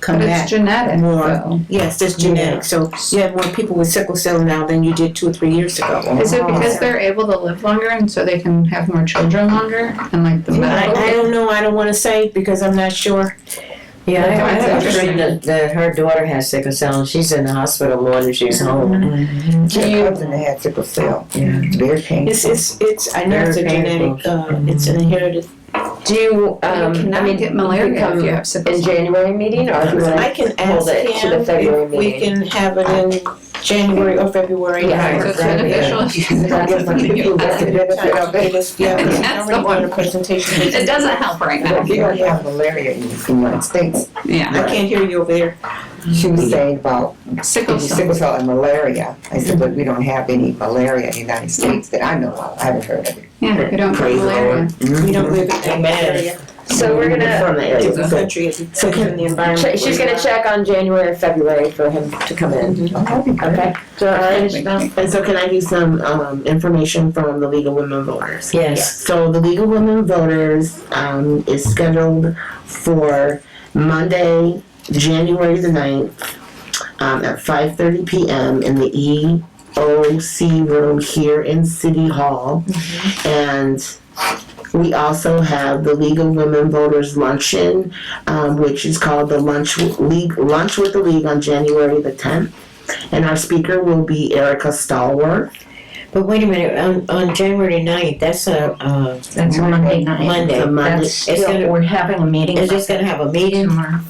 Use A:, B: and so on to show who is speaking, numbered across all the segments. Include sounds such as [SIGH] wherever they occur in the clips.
A: come
B: But
A: back.
B: it's genetic,
A: more.
B: though.
A: Yes, that's genetic, so you have more people with sickle cell now than you did two or three years ago.
B: Is it because they're able to live longer and so they can have more children longer and like the
A: I, I
B: medical?
A: don't know, I don't wanna say because I'm not sure.
C: Yeah, I I have a
B: That's
C: friend that, that her daughter has sickle cell and she's in the hospital more than she's
A: Mm-hmm.
C: home.
D: Do you? Cousin that had sickle cell.
C: Yeah.
D: Very painful.
A: It's, it's, it's, I know it's a
C: Very
A: genetic, uh, it's an inherited.
C: Do you,
B: You
C: um, I
B: cannot
C: mean,
B: get
C: you
B: malaria
C: come
B: if you have sickle
C: in
B: cell.
C: January meeting or if you
A: I
C: want
A: can
C: to hold
A: ask
C: it to
A: him
C: the February
A: if we
C: meeting?
A: can have it in January or February.
B: So
C: Yeah,
B: it's
C: Exactly.
B: [LAUGHS] beneficial if you have
D: I guess
B: that.
D: my
B: [LAUGHS]
D: people got the benefit of
A: It
D: it.
A: was, yeah, it was
B: That's the
A: already on
B: one.
A: the presentation.
B: It doesn't help right now,
D: But you don't have malaria in the United States.
B: yeah.
A: I can't hear you over there.
D: She was saying about
B: Sickle cell.
D: sickle cell and malaria. I said, but we don't have any malaria in the United States that I know of. I haven't heard of it.
B: Yeah, we don't get
C: Praise the
B: malaria.
C: Lord.
A: We don't live in that
C: Amen.
A: area.
C: So we're gonna, From the
A: It's a
C: area,
A: different
C: so-
A: country, it's in the environment.
C: che- she's gonna check on January or February for him to come in,
A: Mm-hmm.
C: okay?
E: So I, and so can I give some, um, information from the League of Women Voters?
C: Yes.
E: So the League of Women Voters, um, is scheduled for Monday, January the ninth, um, at five thirty PM in the EOC room here in City Hall.
F: Mm-hmm.
E: And we also have the League of Women Voters Luncheon, um, which is called the Lunch League, Lunch with the League on January the tenth. And our speaker will be Erica Stallworth.
C: But wait a minute, on, on January ninth, that's a, uh,
F: That's Monday night.
C: Monday.
E: It's a Monday.
F: That's
C: It's
F: still,
C: gonna-
F: we're having a meeting.
C: is this gonna have a meeting?
F: Tomorrow.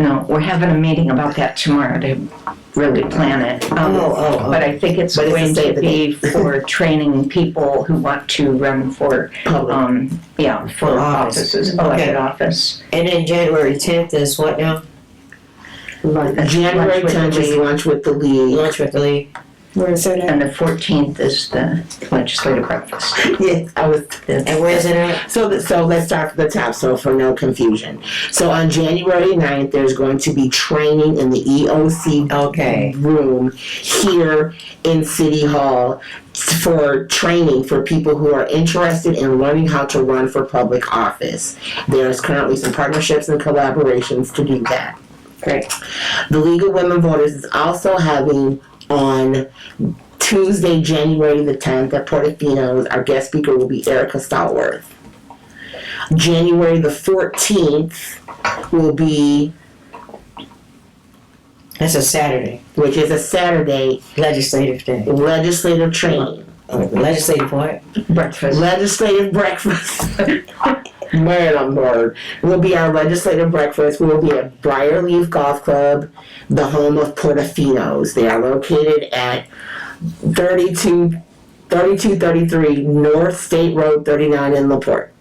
F: No, we're having a meeting about that tomorrow to really plan it. Um,
C: Oh, oh, oh.
F: But I think it's
E: But it's
F: going
E: the state
F: to
E: of the
F: be
E: [LAUGHS]
F: for training people who want to run for,
E: Public.
F: um, yeah, for
C: For office.
F: offices, elected office.
C: oh, And then January tenth is what now?
E: January
F: Lunch with the
E: tenth is
F: league.
E: lunch with the league.
C: Lunch with the league?
A: Where is it at?
F: And the fourteenth is the legislative breakfast.
E: [LAUGHS] Yes, I was.
C: And where's it at?
E: So, th- so let's start from the top, so for no confusion. So on January 9th, there's going to be training in the EOC
C: Okay.
E: room here in City Hall for training for people who are interested in learning how to run for public office. There's currently some partnerships and collaborations to do that.
C: Great.
E: The League of Women Voters is also having on Tuesday, January the 10th at Portofino's. Our guest speaker will be Erica Stallworth. January the 14th will be,
C: That's a Saturday,
E: which is a Saturday,
C: legislative day.
E: legislative training.
C: Legislative what?
F: Breakfast.
E: Legislative breakfast. [LAUGHS] Man, I'm bored. Will be our legislative breakfast. We'll be at Briarleaf Golf Club, the home of Portofino's. They are located at 32, 3233 North State Road 39 in LaPorte.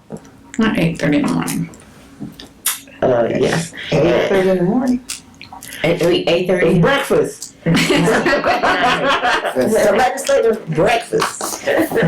B: Not eight thirty in the morning. [LAUGHS]
E: Uh, yes.
D: Eight thirty in the morning.
C: Eight, eight
E: It's
C: thirty?
E: breakfast.
D: That's-
E: It's a legislative breakfast.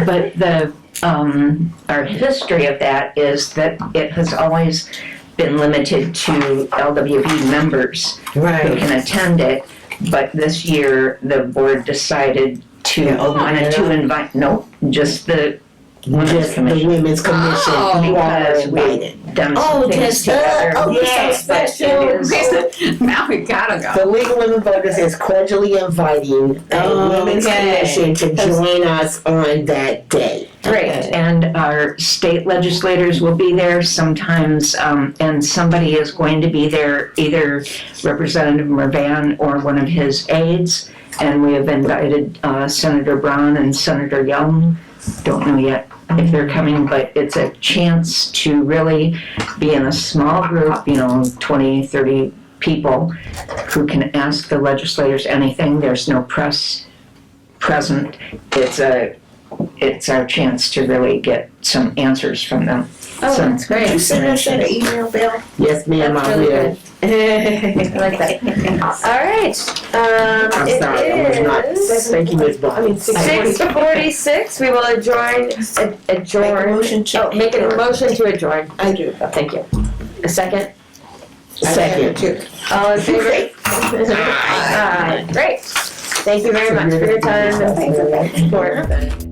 F: But the, um, our history of that is that it has always been limited to LWV members. who
C: Right.
F: can attend it, but this year, the board decided to,
C: Yeah, open
F: wanted
C: it
F: to
C: up.
F: invite, no, just the
E: Just
F: women's
E: the
F: commission.
E: Women's Commission.
B: Oh.
E: you all are
F: Because we-
E: invited.
F: Done
C: Oh,
F: some things
C: just the-
F: together.
C: oh,
E: you're so
F: Yes, but it
C: special.
F: is-
B: Now we gotta go.
E: The League of Women Voters is cordially inviting the
C: Oh,
E: Women's
C: okay.
E: Commission to join us on that day.
F: Great, and our state legislators will be there sometimes, um, and somebody is going to be there, either Representative Mervan or one of his aides. And we have invited uh, Senator Brown and Senator Young. Don't know yet if they're coming, but it's a chance to really be in a small group, you know, 20, 30 people who can ask the legislators anything. There's no press present. It's a it's our chance to really get some answers from them.
B: Oh, that's
A: You
B: great.
A: send us an email, Bill?
E: Yes, ma'am, I
C: really
E: will.
C: I like that. All right, um,
E: I'm
C: it
E: sorry, I was not,
C: is
E: thank you, Ms. Bond.
C: six forty-six. We will adjourn,
A: Make
C: ad-
A: a
C: adjourn.
A: motion to.
C: Oh, make a motion to adjourn. Oh,
A: I do.
C: Thank you. A second?
E: Second.
C: All in [LAUGHS] favor? Aye. Great. Thank you very much for your time and support.